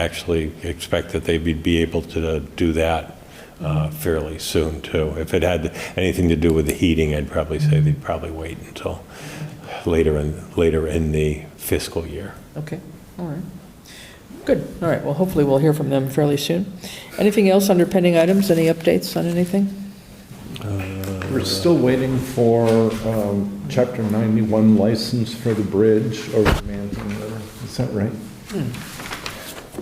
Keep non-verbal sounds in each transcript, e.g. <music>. actually expect that they'd be- be able to do that uh, fairly soon, too. If it had anything to do with the heating, I'd probably say they'd probably wait until later in, later in the fiscal year. Okay, all right. Good, all right, well, hopefully we'll hear from them fairly soon. Anything else under pending items, any updates on anything? We're still waiting for um, Chapter 91 license for the bridge over Manton River. Is that right?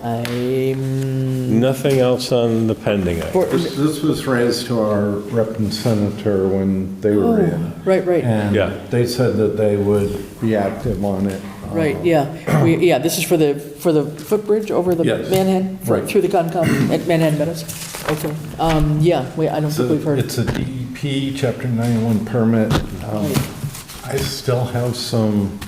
I'm, Nothing else on the pending item? This this was raised to our rep and senator when they were in. Oh, right, right, And Yeah. they said that they would be active on it. Um, right, yeah. We, yeah, this is for the, for the footbridge over the Yes, Manhattan, right. through the Concom at Manhattan Meadows? Okay, um, yeah, we, I don't So think we've heard. It's a DEP Chapter 91 permit. Um, Right. I still have some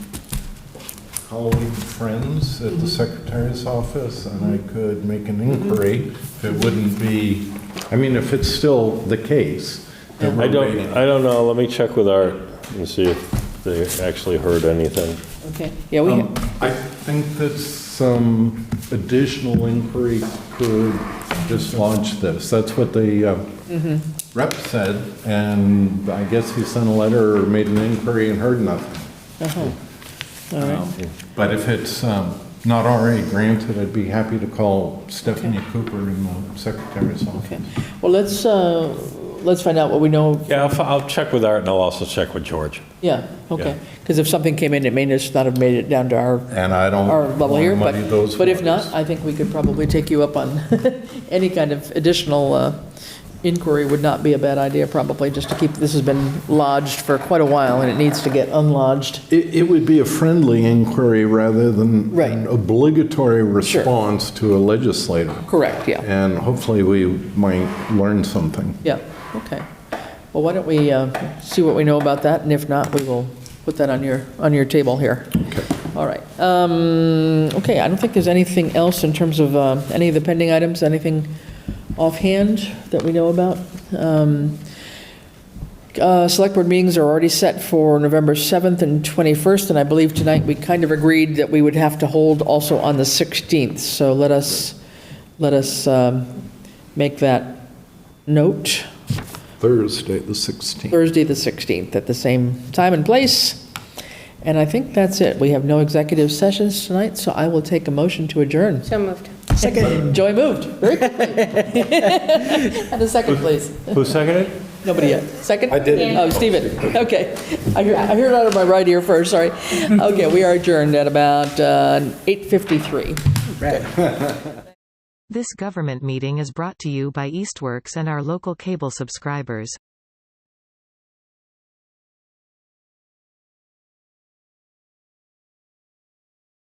colleague friends Mm-hmm. at the secretary's office, and I could make an inquiry if it wouldn't be, I mean, if it's still the case. that I we're don't, waiting. I don't know, let me check with Art and see if they actually heard anything. Okay, Oh, yeah, we, Um, I think that some additional inquiry could just launch this. That's what the uh, Mm-hmm. rep said, and I guess he sent a letter or made an inquiry and heard nothing. Um, uh-huh, all right, But if it's um, not already granted, I'd be happy to call Stephanie Cooper in the secretary's okay. office. Well, let's, uh, let's find out what we know Yeah, I'll, f- I'll check with Art and I'll also check with George. Yeah, okay, because if something came in, it may just not have made it down to our, And I don't our level want here, to but, muddy those but if not, waters. I think we could probably take you up on <laughs> any kind of additional uh, inquiry would not be a bad idea, probably, just to keep, this has been lodged for quite a while, and it needs to get unlodged. It, it would be a friendly inquiry rather than Right. an obligatory response to a legislator. Correct, yeah, And hopefully we might learn something. yeah, okay. Well, why don't we uh, see what we know about that, and if not, we will put that on your, on your table here. All right. Um, Okay, I don't think there's anything else in terms of uh, any of the pending items, anything offhand that we know about. Um, uh, Select Board meetings are already set for November 7th and 21st, and I believe tonight we kind of agreed that we would have to hold also on the 16th. So let us, let us um, make that note. Thursday, the 16th. Thursday, the 16th, at the same time and place. And I think that's it. We have no executive sessions tonight, so I will take a motion to adjourn. So moved. Second. Joy moved, very <laughs> quickly. And a second, please. Who seconded? Nobody yet. Second? I did it. Oh, Stephen, okay. I hear- I heard it out of my right ear first, sorry. Okay, we are adjourned at about uh, 8:53. This government meeting is brought to you by Eastworks and our local cable subscribers.